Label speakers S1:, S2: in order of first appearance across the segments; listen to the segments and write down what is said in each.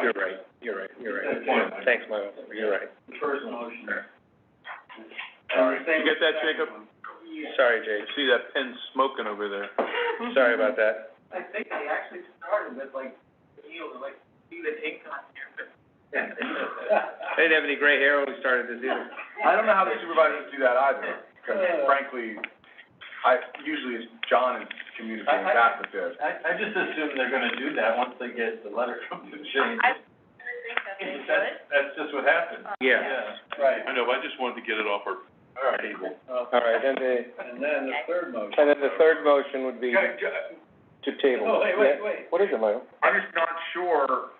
S1: You're right, you're right, you're
S2: Good point, Mike.
S1: right. Thanks, Michael, you're right.
S2: The first motion.
S1: Sorry.
S2: And the same
S3: You get that,
S2: with the
S3: Jacob?
S2: second one.
S1: Sorry,
S3: You
S1: Jake,
S3: see that pen smoking over there?
S1: sorry about that.
S2: I think they actually started with like, you know, like, see the ink on here, but.
S1: I didn't have any gray hair when we started this either.
S4: I don't know how the supervisors do that either, because frankly, I, usually it's John is communicating back with this.
S2: I, I just assume they're gonna do that once they get the letter from the change.
S5: I think that they should.
S2: That's, that's just what happened.
S1: Yeah,
S2: Right.
S3: I know, but I just wanted to get it off our
S2: All right.
S3: table.
S1: all right, then the,
S2: And then the third motion.
S1: and then the third motion would be
S4: Yeah, yeah,
S1: to table.
S2: No, Oh, wait, wait,
S1: Yeah.
S2: wait.
S1: What is it, Michael?
S4: I'm just not sure,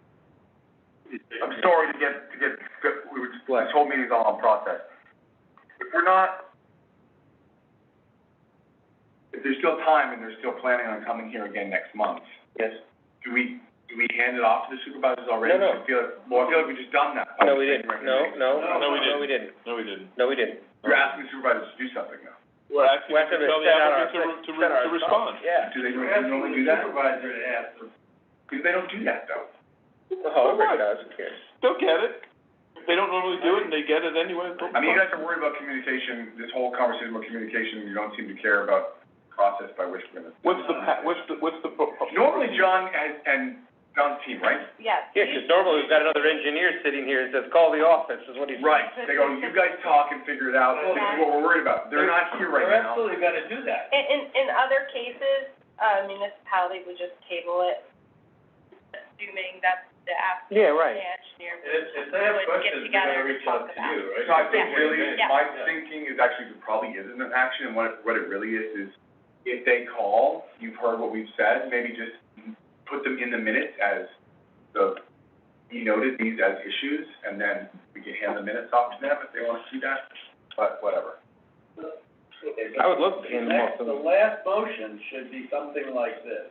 S4: I'm sorry to get, to get, we were, just- this whole meeting's all on process. If we're not, if there's still time and they're still planning on coming here again next month,
S1: Yes.
S4: do we, do we hand it off to the supervisors already?
S1: No, no.
S4: I feel like, well, I feel like we just done that.
S1: No, we didn't, no, no,
S3: No, we
S1: no, we didn't,
S3: No, we didn't.
S1: no, we didn't.
S4: You're asking the supervisors to do something now.
S3: We're asking
S1: We have
S3: you
S1: to
S3: to tell the
S1: set our-
S3: applicant to, re- to, re-
S1: set our
S3: to respond.
S1: thoughts, Yeah.
S4: Do they really
S2: We're asking
S4: normally
S2: the
S4: do that?
S2: supervisor to ask them.
S4: Because they don't do that though.
S1: Oh, Rick does, who cares?
S3: They'll get it. If They don't normally do it and they get it anyway.
S4: I mean, you guys are worried about communication, this whole conversation about communication, you don't seem to care about process by which we're gonna.
S3: What's the pa- what's the, what's the pro- pro-
S4: Normally, John and, and John's team, right?
S5: Yes.
S1: Yeah, 'cause normally we've got another engineer sitting here that says, call the office, is what he's.
S4: Right, they go, you guys talk and figure it out, this is what we're worried about, they're not here right
S2: They're
S4: now.
S2: absolutely gonna do that.
S5: In, in, in other cases, uh, municipality would just table it, assuming that the applicant
S1: Yeah,
S5: and
S1: right.
S5: the engineer
S2: If, if they have
S5: would get
S2: questions, they're
S5: together
S2: gonna
S5: and
S2: reach
S5: talk
S2: out to
S5: about it.
S2: you, right?
S4: So I think really,
S5: Yeah.
S4: my thinking is actually, it probably isn't an action, and what, it- what it really is, is if they call, you've heard what we've said, maybe just put them in the minutes as the, you noted these as issues, and then we can hand the minutes off to them if they wanna see that, but whatever.
S1: I would love to
S2: The
S1: hand them off
S2: next,
S1: to
S2: the
S1: them.
S2: last motion should be something like this.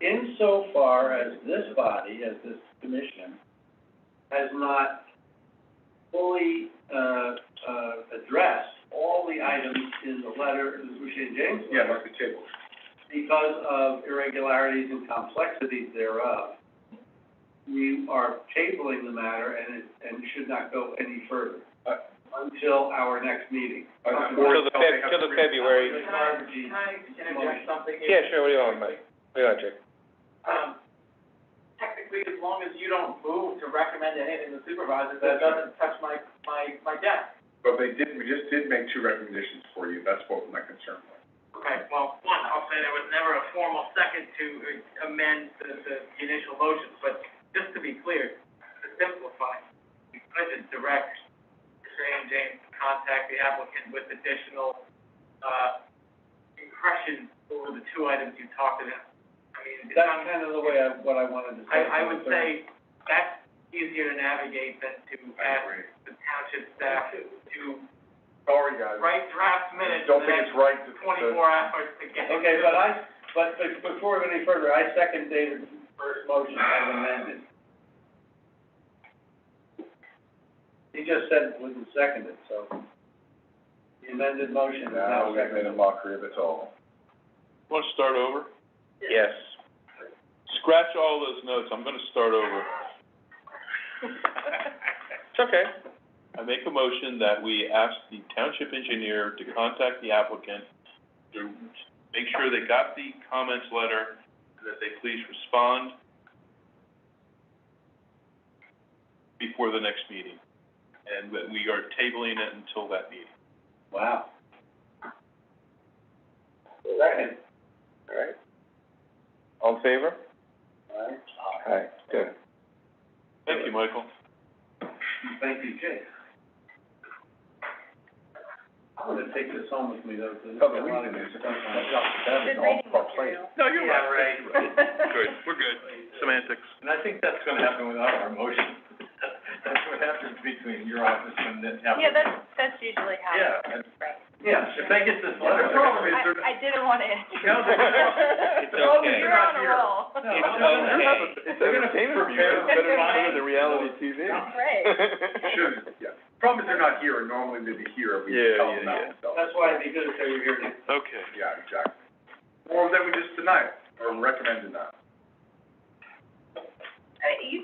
S2: Insofar as this body, as this commission, has not fully, uh, uh, addressed all the items in the letter, in the Boucher and James
S4: Yeah,
S2: letter,
S4: mark the table.
S2: because of irregularities and complexities thereof, we are tabling the matter and it, and should not go any further uh, until our next meeting.
S4: Uh,
S1: Till
S4: or
S1: the
S4: until they
S1: Feb-
S4: have
S1: till the
S4: to-
S1: February.
S2: Can I, can I interject something?
S1: Yeah, sure, what do you want, Mike? What do you want, Jake?
S2: Um, technically, as long as you don't move to recommend anything to supervisors, that doesn't touch my, my, my desk.
S4: But they did, we just did make two recommendations for you, that's what my concern was.
S2: Okay, well, one, I'll say there was never a formal second to uh, amend the, the initial motion, but just to be clear, to simplify, you could just direct Shane James to contact the applicant with additional, uh, impressions over the two items you talked about. I mean, it's not.
S1: kind of the way I, what I wanted to
S2: I, I would say that's easier to navigate than to
S4: I
S2: ask
S4: agree.
S2: the township staff to
S4: Sorry, guys.
S2: write draft minutes in
S4: Don't
S2: the
S4: think
S2: next
S4: it's right to.
S2: twenty-four hours to get.
S4: Okay, but
S2: I, but, but before we go any further, I second David's first motion as amended. He just said it wasn't seconded, so the amended motion is
S4: Now,
S2: now
S4: we've made a
S2: seconded.
S4: mockery of it all.
S3: Wanna start over?
S1: Yes.
S3: Scratch all those notes. I'm gonna start over.
S1: It's okay.
S3: I make a motion that we ask the township engineer to contact the applicant to make sure they got the comments letter, and that they please respond before the next meeting, and that we are tabling it until that meeting.
S2: Wow. Second.
S1: All right. All in favor?
S2: All right.
S1: All right, good.
S3: Thank you, Michael.
S2: Thank you, Jay. I'm gonna take this home with me though, because
S4: Oh, the reason is,
S5: Good reading material.
S3: No,
S2: Yeah, right.
S3: Good, we're good. Semantics.
S4: And I think that's gonna happen without our motion. That's what happens between your office and the
S5: Yeah, that's, that's usually how. Right.
S2: Yeah, if they get this
S4: letter- The problem is
S5: I, I didn't want to.
S2: No, no, no.
S1: It's okay.
S5: You're on a roll. better monitor the
S1: reality TV.
S5: Right.
S4: Should, yeah. Problem is they're not here, and normally they'd be here, if we
S3: Yeah,
S4: tell
S3: yeah,
S4: them that, so.
S2: That's why it'd be good if they were here next.
S3: Okay.
S4: Yeah, exactly. Or that we just deny it, or recommend denial.
S5: Uh, You